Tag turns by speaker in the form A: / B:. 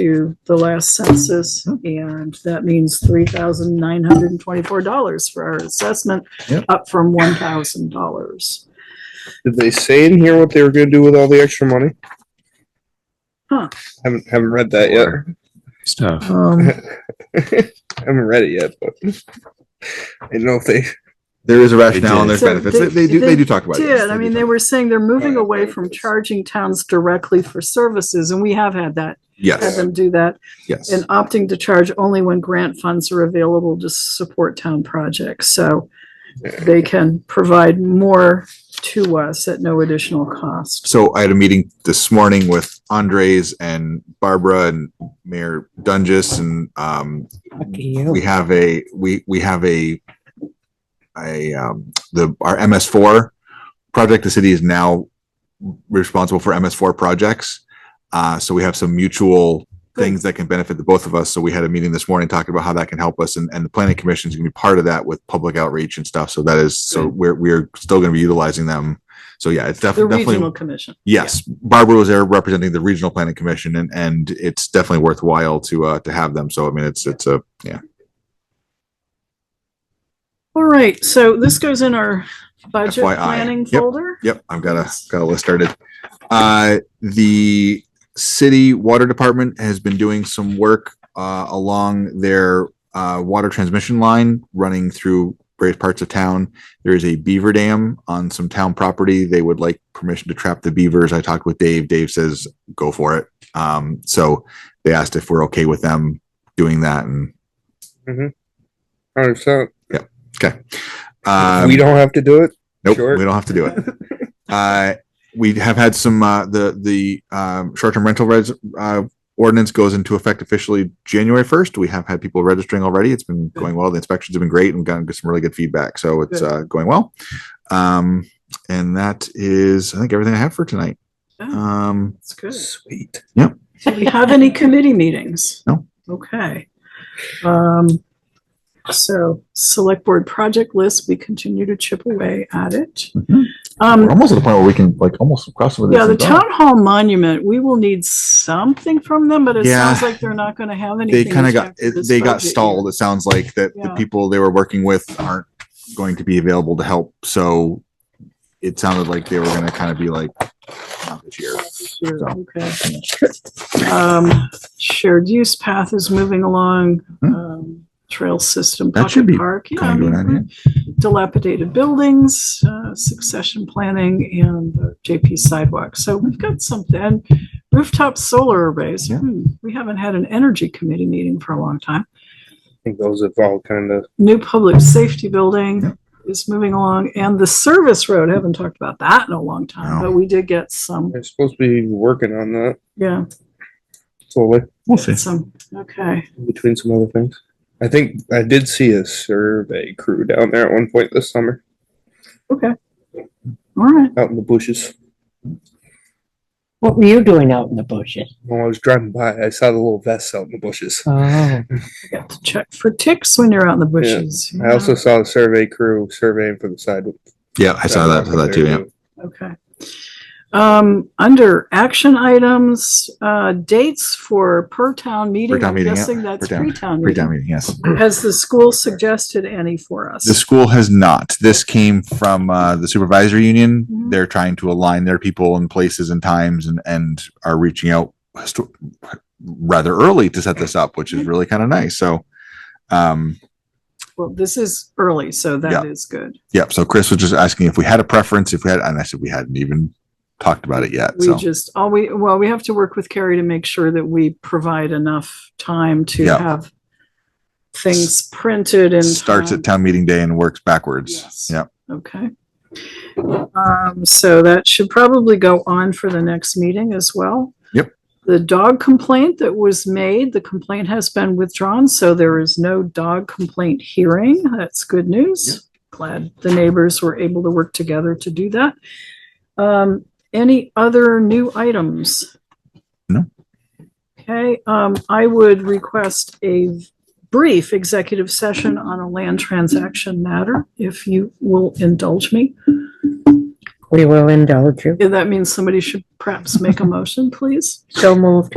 A: to the last
B: Hmm.
A: census, and that means three thousand nine hundred and twenty-four dollars for our assessment,
B: Yep.
A: up from one thousand dollars.
C: Did they say in here what they were gonna do with all the extra money?
A: Huh.
C: Haven't, haven't read that yet.
D: stuff.
A: Um,
C: haven't read it yet, but I don't know if they,
B: There is a rationale and
D: did.
B: there's
A: So
B: benefits. They,
A: they-
B: they do, they do talk about it. yes,
A: did, I
B: do
A: mean, they
B: talk-
A: were saying they're moving
C: Right,
A: away
C: right.
A: from charging towns directly for services, and we have had that, had
B: Yes,
A: them do that,
B: yes.
A: and opting to charge only when grant funds are available to support town projects, so they can provide more to us at no additional cost.
B: So I had a meeting this morning with Andres and Barbara and Mayor Dungus and, um, we have a, we, we have a, a, um, the, our MS four project, the city is now responsible for MS four projects. Uh, so we have some mutual things that can benefit the both of us. So we had a meeting this morning talking about how that can help us and, and the planning commission is gonna be part of that with public outreach and stuff. So that is, so we're, we're still gonna be utilizing them. So yeah, it's
A: The
B: definitely, definitely.
A: regional commission.
B: Yes, Barbara was there representing the regional planning commission and, and it's definitely worthwhile to, uh, to have them. So I mean, it's, it's a, yeah.
A: All right, so this goes in our budget
B: FYI.
A: planning
B: Yep.
A: folder.
B: Yep, I've got a, got a list started. Uh, the city water department has been doing some work, uh, along their, uh, water transmission line running through various parts of town. There is a beaver dam on some town property. They would like permission to trap the beavers. I talked with Dave. Dave says, go for it. Um, so they asked if we're okay with them doing that and,
C: hundred percent,
B: um,
C: we don't have to do it.
B: Nope,
C: Sure.
B: we don't have to do it. uh, we have had some uh, the the um, short term rental res- uh, ordinance goes into effect officially January first. We have had people registering already. It's been going well. The inspections have been great and gotten some really good feedback. So it's
A: Good.
B: uh, going well. Um, and that is, I think, everything I have for tonight.
A: Oh,
B: Um,
A: That's good.
C: Sweet.
A: Do we have any committee meetings?
B: No.
A: Okay. Um, so select board project list, we continue to chip away at it.
B: Mhm.
A: Um,
B: we're almost at the point where we can like almost cross over. this
A: yeah, the
B: and done.
A: town hall monument, we will need something from them, but it
B: Yeah.
A: sounds like they're not going to have anything.
B: they kind of got
A: for
B: it,
A: this
B: they got
A: budget year.
B: stalled. It sounds like that the
A: Yeah.
B: people they were working with aren't going to be available to help. So it sounded like they were going to kind of be like not this year.
A: Sure, okay. Um, shared use path is moving along,
B: Hmm.
A: um, trail system.
B: That should
A: pocket
B: be
A: park, yeah, I
B: Kind of
A: mean,
B: doing that,
A: Dilapidated buildings, uh, succession planning and the JP sidewalk. So we've got something, and rooftop solar arrays.
B: Yeah.
A: Hmm, We haven't had an energy committee meeting for a long time.
C: I think those have all kind of,
A: New public safety building
B: Yeah.
A: is moving along and the service road, haven't talked about that in a long time,
B: No.
A: but we did get some,
C: they're supposed to be working on that
A: yeah,
C: slowly,
B: We'll
A: some, okay.
C: between some other things. I think I did see a survey crew down there at one point this summer,
A: Okay. All right.
C: out in the bushes.
E: What were you doing out in the bushes?
C: When I was driving by, I saw the little vests out in the bushes.
E: Oh,
A: I got to check for ticks when you're out in the bushes.
C: I also saw the survey crew surveying for the side.
B: Yeah, I saw that. Saw that too. Yeah.
A: Okay. Um, under action items, uh, dates for per town meeting.
B: town
A: I'm
B: meeting, yeah.
A: guessing that's
B: Per town-
A: pre town
B: Pre town
A: meeting.
B: meeting. Yes.
A: Has the school suggested any for us?
B: The school has not. This came from uh, the supervisory union.
A: Mhm.
B: They're trying to align their people and places and times and, and are reaching out histo- rather early to set this up, which
A: Mm-hmm.
B: is really kind of nice. So, um,
A: Well, this is early, so
B: Yeah.
A: that is good.
B: Yep. So Chris was just asking if we had a preference, if we had, and I said we hadn't even talked about it yet.
A: We
B: So
A: just, all we, well, we have to work with Carrie to make sure that we provide enough time to
B: Yeah.
A: have things printed and.
B: starts at town meeting day and works backwards.
A: Yes.
B: Yep.
A: Okay. Um, so that should probably go on for the next meeting as well.
B: Yep.
A: The dog complaint that was made, the complaint has been withdrawn, so there is no dog complaint hearing. That's good news. Glad the neighbors were able to work together to do that. Um, any other new items?
B: No.
A: Okay, um, I would request a brief executive session on a land transaction matter, if you will indulge me.
E: we will indulge you.
A: If That means somebody should perhaps make a motion, please.
E: So moved.